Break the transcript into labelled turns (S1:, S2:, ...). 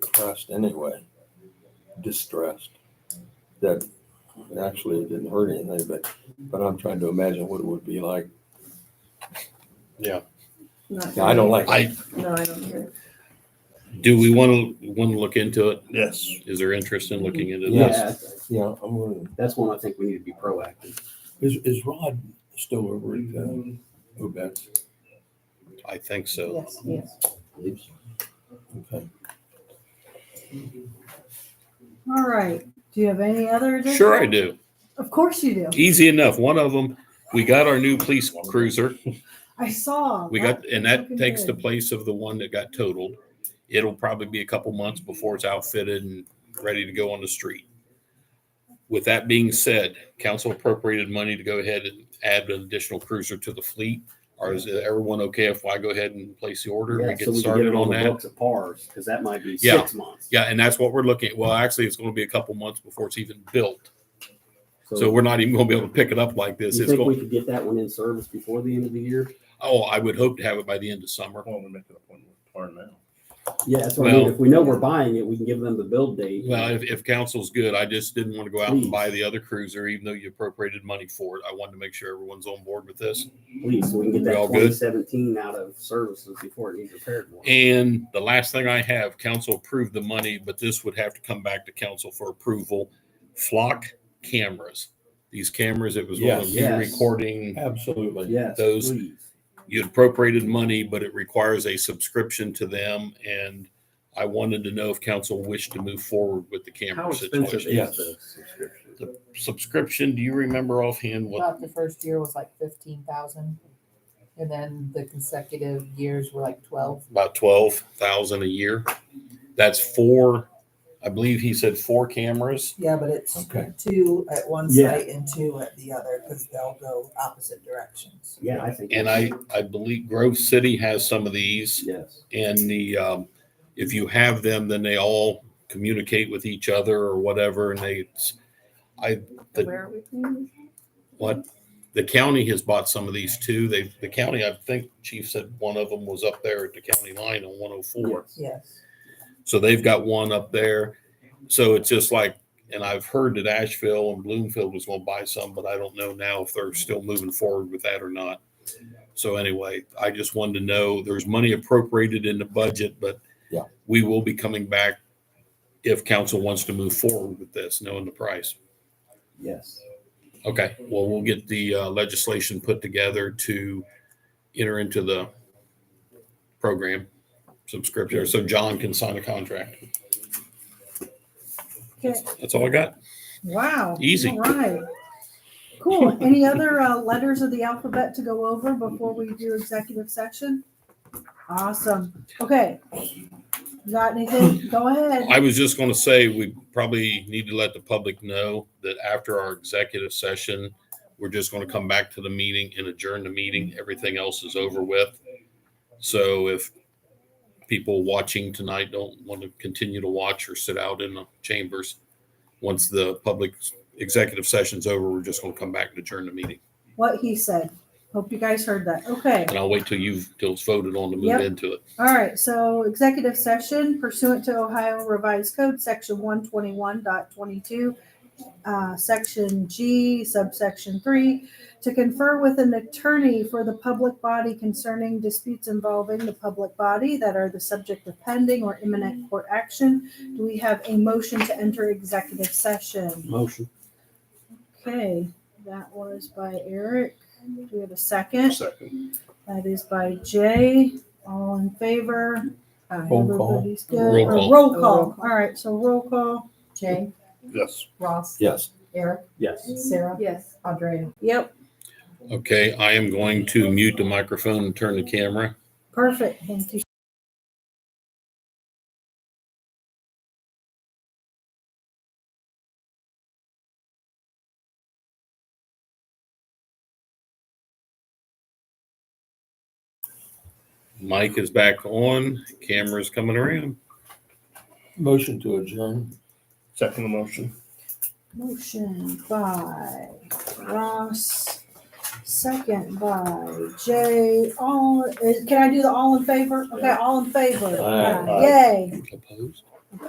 S1: depressed anyway, distressed. That actually it didn't hurt anything, but but I'm trying to imagine what it would be like.
S2: Not-
S1: Yeah, I don't like.
S3: I,
S2: No, I don't hear.
S3: do we want to, want to look into it?
S4: Yes.
S3: Is there interest in looking into this?
S5: Yeah,
S1: Yeah, I'm gonna.
S5: that's one I think we need to be proactive.
S1: Is is Rod still over at um, Obet's?
S3: I think so.
S2: Yes, yes.
S1: Okay.
S2: All right. Do you have any other? additional-
S3: Sure I do.
S2: Of course you do.
S3: Easy enough. One of them, we got our new police cruiser.
S2: I saw.
S3: We
S2: that.
S3: got, and
S2: looking
S3: that takes the
S2: good.
S3: place of the one that got totaled. It'll probably be a couple months before it's outfitted and ready to go on the street. With that being said, council appropriated money to go ahead and add an additional cruiser to the fleet. Or is everyone okay if I go ahead and place the order and
S5: Yeah,
S3: we get
S5: so we can get
S3: started
S5: it on
S3: on
S5: the
S3: that?
S5: books at pars, because that might be
S3: Yeah.
S5: six months.
S3: Yeah, and that's what we're looking at. Well, actually, it's going to be a couple months before it's even built. So we're not even going to be able to pick it up like this.
S5: You
S3: It's
S5: think we
S3: going,
S5: could get that one in service before the end of the year?
S3: oh, I would hope to have it by the end of summer.
S5: Oh,
S4: Well, we're making a point with par now.
S5: Yeah, that's what I mean.
S3: Well-
S5: If we know we're buying it, we can give them the build date.
S3: Well, if, if council's good, I just didn't want to go out
S5: Please.
S3: and buy the other cruiser, even though you appropriated money for it. I wanted to make sure everyone's on board with this.
S5: Please, so we can get
S3: We all
S5: that
S3: good?
S5: twenty seventeen out of services before it needs repaired more.
S3: And the last thing I have, council approved the money, but this would have to come back to council for approval. Flock cameras. These cameras, it was one of
S1: Yes.
S3: you
S5: Yes.
S3: recording.
S1: Absolutely.
S5: Yes,
S3: those-
S5: please.
S3: You appropriated money, but it requires a subscription to them. And I wanted to know if council wished to move forward with the
S5: How
S3: camera
S5: expensive
S3: situation.
S1: Yes.
S5: is the subscription?
S3: Subscription, do you remember offhand what
S6: About the first year was like fifteen thousand, and then the consecutive years were like twelve.
S3: about twelve thousand a year. That's four, I believe he said four cameras.
S7: Yeah, but it's
S1: Okay.
S7: two at one
S5: Yeah.
S7: site and two at the other because they'll go opposite directions.
S5: Yeah, I think.
S3: And I, I believe Grove City has some of these
S5: Yes.
S3: and the, um, if you have them, then they all communicate with each other or whatever and they, it's- I, The-
S2: Where are we? please?
S3: what, the county has bought some of these too. They, the county, I think Chief said one of them was up there at the county line on one oh four.
S7: Yes.
S3: So they've got one up there. So it's just like, and I've heard that Asheville and Bloomfield was going to buy some, but I don't know now if they're still moving forward with that or not. So anyway, I just wanted to know there's money appropriated in the budget, but
S1: Yeah.
S3: we will be coming back if council wants to move forward with this, knowing the price.
S5: Yes.
S3: Okay, well, we'll get the uh, legislation put together to enter into the program subscription, so John can sign a contract.
S2: Okay.
S3: That's all I got.
S2: Wow.
S3: Easy.
S2: All right. Cool. Any other uh, letters of the alphabet to go over before we do executive section? Awesome. Okay. Got anything? Go ahead.
S3: I was just going to say, we probably need to let the public know that after our executive session, we're just going to come back to the meeting and adjourn the meeting. Everything else is over with. So if people watching tonight don't want to continue to watch or sit out in the chambers, once the public executive session's over, we're just going to come back and adjourn the meeting.
S2: What he said. Hope you guys heard that. Okay.
S3: And I'll wait till you've, till it's voted on to move
S2: Yep.
S3: into it.
S2: All right, so executive session pursuant to Ohio Revised Code, section one twenty-one uh, section G, subsection three, to confer with an attorney for the public body concerning disputes involving the public body that are the subject of pending or imminent court action. Do we have a motion to enter executive session?
S5: Motion.
S2: Okay, that was by Eric. Do we have a second?
S4: Second.
S2: That is by Jay. All in favor? Uh,
S1: Roll call.
S2: Everybody's good.
S3: Roll
S2: Or
S3: call.
S2: Roll call.
S6: Oh, roll
S2: All right, so roll call.
S6: Jay,
S4: Yes.
S6: Ross,
S1: Yes.
S6: Eric,
S5: Yes.
S6: Sarah,
S2: Yes.
S6: Andrea.
S2: Yep,
S3: Okay, I am going to mute the microphone and turn the camera.
S2: perfect. Thank you.
S3: Mike is back on, camera's coming around.
S1: Motion to adjourn.
S4: Second motion.
S2: Motion by Ross, second by Jay. uh, All, is- can I do the all in favor? Okay, all in favor.
S1: Aye.
S2: Yay.
S3: Opposed?